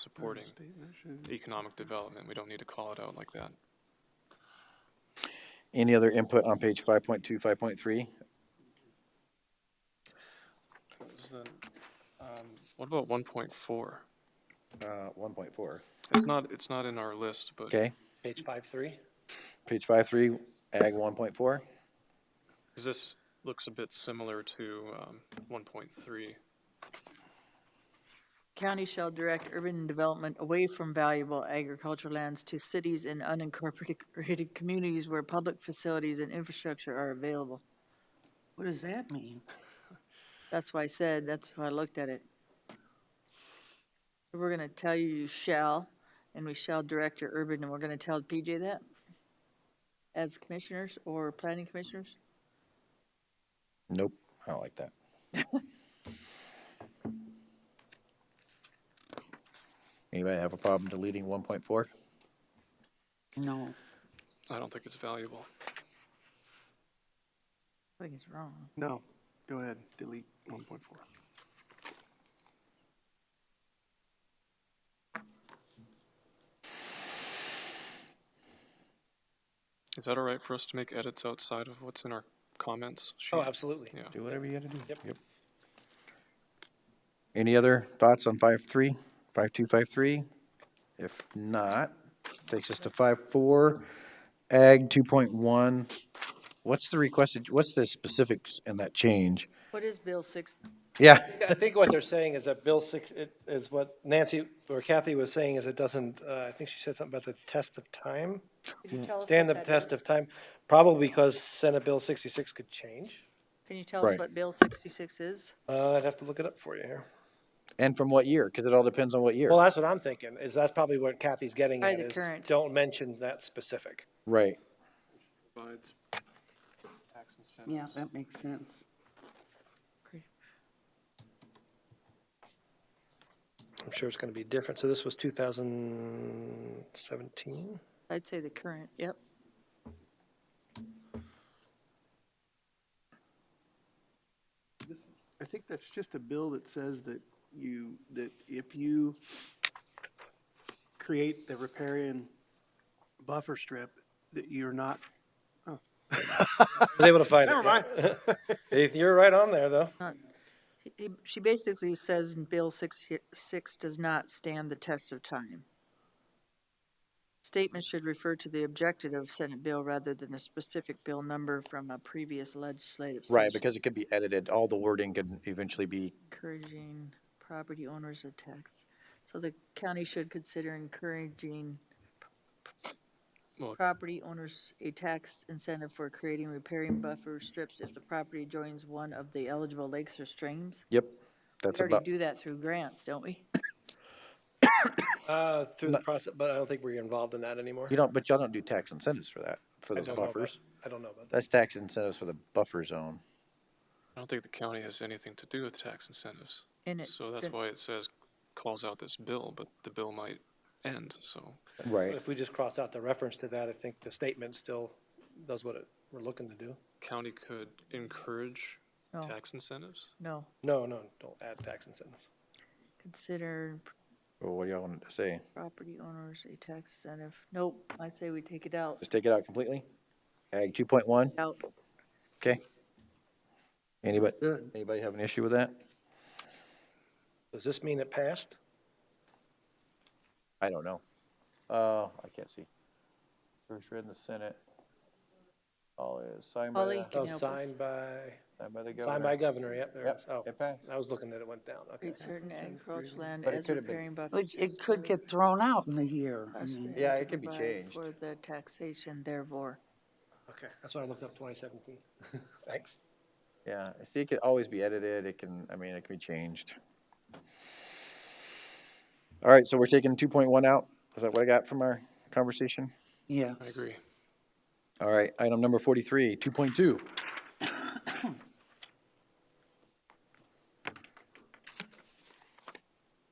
supporting economic development. We don't need to call it out like that. Any other input on page five point two, five point three? Is that- um, What about one point four? Uh, one point four, It's not, it's not in our list, but okay? Page five, three? Page five three, ag one point four, 'cause this looks a bit similar to um, one point three. County shall direct urban development away from valuable agricultural lands to cities and unincorporated communities where public facilities and infrastructure are available. What does that mean? That's why I said, that's why I looked at it. We're gonna tell you you shall, and we shall direct your urban, and we're gonna tell PJ that? As commissioners or planning commissioners? nope, I don't like that. Anybody have a problem deleting one point four? No. I don't think it's valuable. I think it's wrong. No, go ahead, delete one point four. Is that all right for us to make edits outside of what's in our comments? sheet? Oh, absolutely. Yeah. Do whatever you gotta do. Yep. Any other thoughts on five three, five two, five three? If not, takes us to five four, ag two point one. What's the requested, what's the specifics in that change? What is Bill six? Yeah, I think what they're saying is that Bill six, it- is what Nancy or Kathy was saying is it doesn't, uh, I think she said something about the test of time. Could you tell us Stand the what that test is? of time, probably because Senate Bill sixty-six could change. Can you tell us Right. what Bill sixty-six is? Uh, I'd have to look it up for you here. and from what year? Because it all depends on what year. Well, that's what I'm thinking, is that's probably what Kathy's getting By at, the is current. don't mention that specific. Right. Provides tax incentives. Yeah, that makes sense. I'm sure it's gonna be different. So this was two thousand seventeen? I'd say the current, yep. I think that's just a bill that says that you, that if you create the riparian buffer strip, that you're not, I was able to find it. Never mind. You're right on there, though. He- he- She basically says in Bill 66 does not stand the test of time. Statements should refer to the objective of Senate bill rather than the specific bill number from a previous legislative session. Right, because it could be edited, all the wording could eventually be, Encouraging property owners of tax. So the county should consider encouraging Well- property owners a tax incentive for creating repairing buffer strips if the property joins one of the eligible lakes or streams. yep, that's We already about, do that through grants, don't we? Uh, through the process, but I don't think we're involved in that anymore. you don't, but y'all don't do tax incentives for that, for I those don't know about- buffers. I don't know about that. That's tax incentives for the buffer zone. I don't think the county has anything to do with tax incentives. And it- So that's then- why it says, calls out this bill, but the bill might end, so. But Right. if we just cross out the reference to that, I think the statement still does what it, we're looking to do. County could encourage No. tax incentives? No, No, no, don't add tax incentives. consider Well, what do y'all want to say? property owners a tax incentive. Nope, I say we take it out. Just take it out completely? Ag two point one, Out. okay? Anybody, Good. anybody have an issue with that? Does this mean it passed? I don't know. Uh, I can't see. First read in the Senate. All is signed by Holly? the, Can Oh, you help us? signed by, signed by the signed by governor. governor, yep, there it is. Yep, Oh, it passed. I was looking that it went down, okay. Create certain agricultural land But it as could have been- Mm-hmm. repairing But buffers. it could get thrown out in a year. I mean, Yeah, it could be Provide changed. For the taxation therefore. Okay, that's why I looked up twenty seventeen. Thanks. Yeah, see, it could always be edited, it can, I mean, it can be changed. All right, so we're taking two point one out, is that what I got from our conversation? Yes. I agree. All right, item number forty-three, two point two.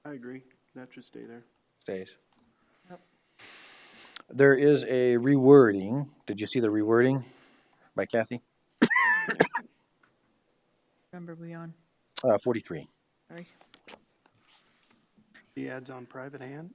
I agree, that should stay there. Stays. There is a rewording, did you see the rewording by Kathy? Remember we on, Uh, forty-three. sorry. the ads on private hand?